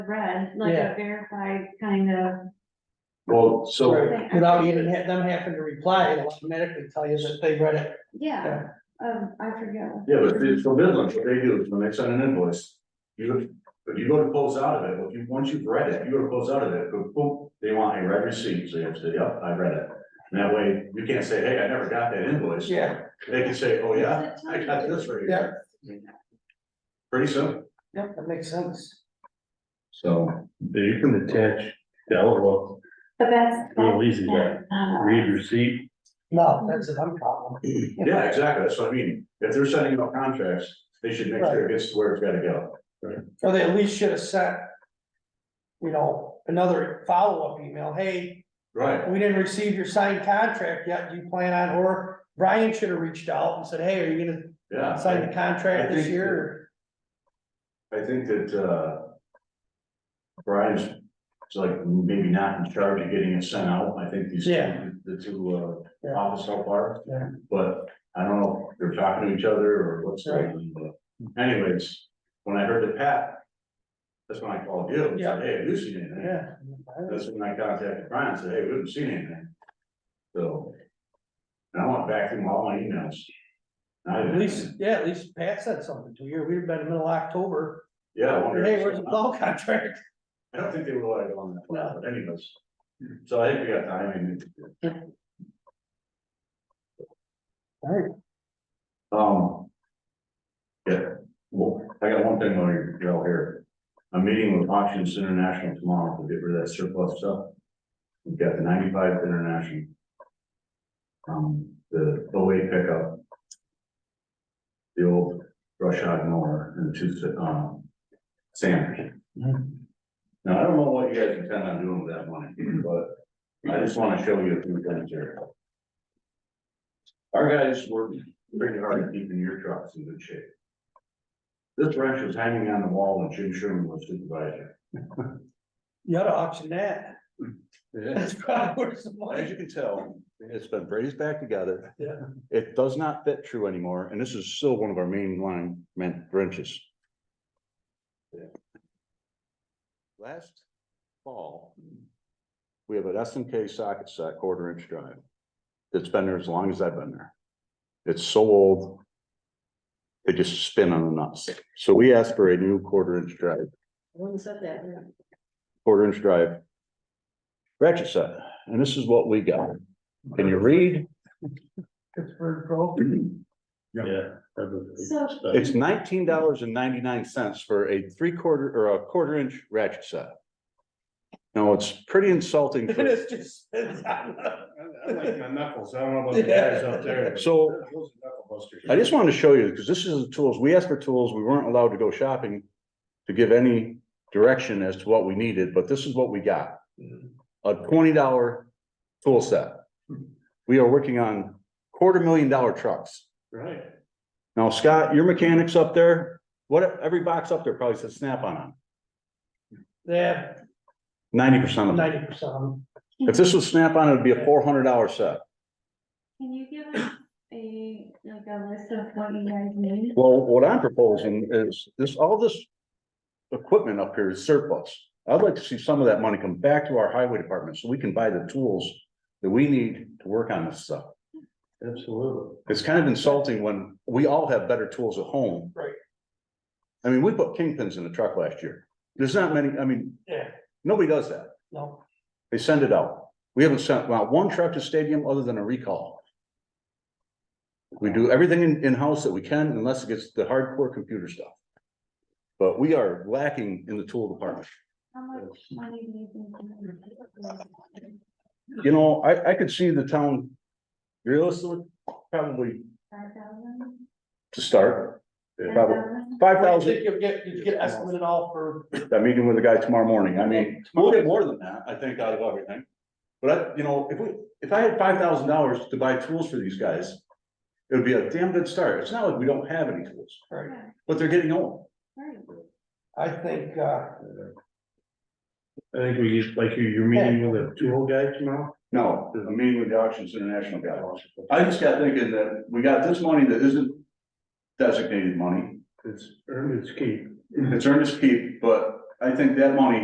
read, like a Yeah. verified kind of, Well, so, Right, Without even ha- them having to reply, it'll automatically tell you that they read it. yeah, um, I forget. what- yeah, but it's for Midlands, what they do is when they send an invoice, you, if you go to close out of it, if you, once you've read it, you go to close out of it, boom, boom, they want a red receipt, so you have to say, yep, I read it. And that way, you can't say, hey, I never got that invoice. Yeah. They can say, oh, yeah, I got this right here. Pretty simple, Yep, that makes sense. so, You can attach the envelope, But that's. Real easy, yeah. Uh, read receipt, No, that's a dumb problem. yeah, exactly, that's what I mean, if they're sending out contracts, they should make sure it gets to where it's gotta go. Mm-hmm. Or they at least should have sent. You know, another follow-up email, hey, Right, we didn't receive your signed contract yet, do you plan on, or Brian should have reached out and said, hey, are you gonna yeah. sign the contract I this think- year? I think that, uh. Brian's, it's like maybe not in charge of getting it sent out, I think these, Yeah. the two, uh, Yeah. office help are. Yeah. But I don't know if they're talking to each other or what's going on, but anyways, when I heard the Pat. That's when I called you, and Yeah. said, hey, have you seen anything? Yeah. That's when I contacted Brian, and said, hey, we haven't seen anything. So. And I went back through all my emails. And I- At least, yeah, at least Pat said something to you, we've been in the middle of October, Yeah. I wonder if hey, where's the someone- plow contract? I don't think they would let it go on that No. plan, but anyways. So I think we got time. and- Alright. Um. Yeah, well, I got one thing while you're you're all here. I'm meeting with Auctions International tomorrow to get rid of that surplus stuff. We've got the ninety-five International. Um, the away pickup. The old brush hog mower and the two, um, sanders. Mm-hmm. Now, I don't know what you guys intend on doing with that money, but I just wanna show you a few things here. Our guys were pretty hard at keeping your trucks in good shape. This wrench was hanging on the wall when Jim Sherman was supervisor. You ought to auction that, that's probably worth some money. As you can tell, it's been braised back together. Yeah. It does not fit true anymore, and this is still one of our main line meant wrenches. Last fall, we have an S and K socket set, quarter inch drive. It's been there as long as I've been there. It's so old. They just spin on the nuts. So we asked for a new quarter inch drive, When said that, quarter inch drive. Ratchet set, and this is what we got. Can you read? Pittsburgh Pro. yeah. that was- So- It's nineteen dollars and ninety-nine cents for a three-quarter or a quarter-inch ratchet set. Now, it's pretty insulting. And for- it's just. it's on the- I like my knuckles, I don't know about the guys up there. So I just wanted to show you, because this is the tools, we asked for tools, we weren't allowed to go shopping to give any direction as to what we needed, but this is what we got. A twenty dollar tool set. We are working on quarter million dollar trucks. Right. Now, Scott, your mechanics up there, what, every box up there probably says Snap-on on, They have ninety percent of them. ninety percent. If this was Snap-on, it'd be a four hundred dollar set. Can you give us a, like a list of what you guys need? Well, what I'm proposing is this, all this equipment up here is surplus. I'd like to see some of that money come back to our highway department so we can buy the tools that we need to work on this stuff. Absolutely. It's kind of insulting when we all have better tools at home. Right. I mean, we put kingpins in the truck last year. There's not many, I mean, Yeah, nobody does that. no, They send it out. We haven't sent out one truck to stadium other than a recall. We do everything in, in-house that we can unless it gets the hardcore computer stuff. But we are lacking in the tool department. How much money do you think? you need? You know, I, I could see the town realistically, probably Five thousand? to start, Ten probably thousand? five I thousand. think you'll get, you get estimate and all for, I'm meeting with a guy tomorrow morning. I mean, we'll get more than that, I think, out of everything. But I, you know, if we, if I had five thousand dollars to buy tools for these guys, it would be a damn good start. It's not like we don't have any tools. right, Yeah, But they're getting old. right. I think, uh, I think we, used- like you, you're meeting with a tool guy tomorrow? No, I'm meeting with the Auctions International guy. I just got thinking that we got this money that isn't designated money. It's earned its keep. It's earnest keep, but I think that money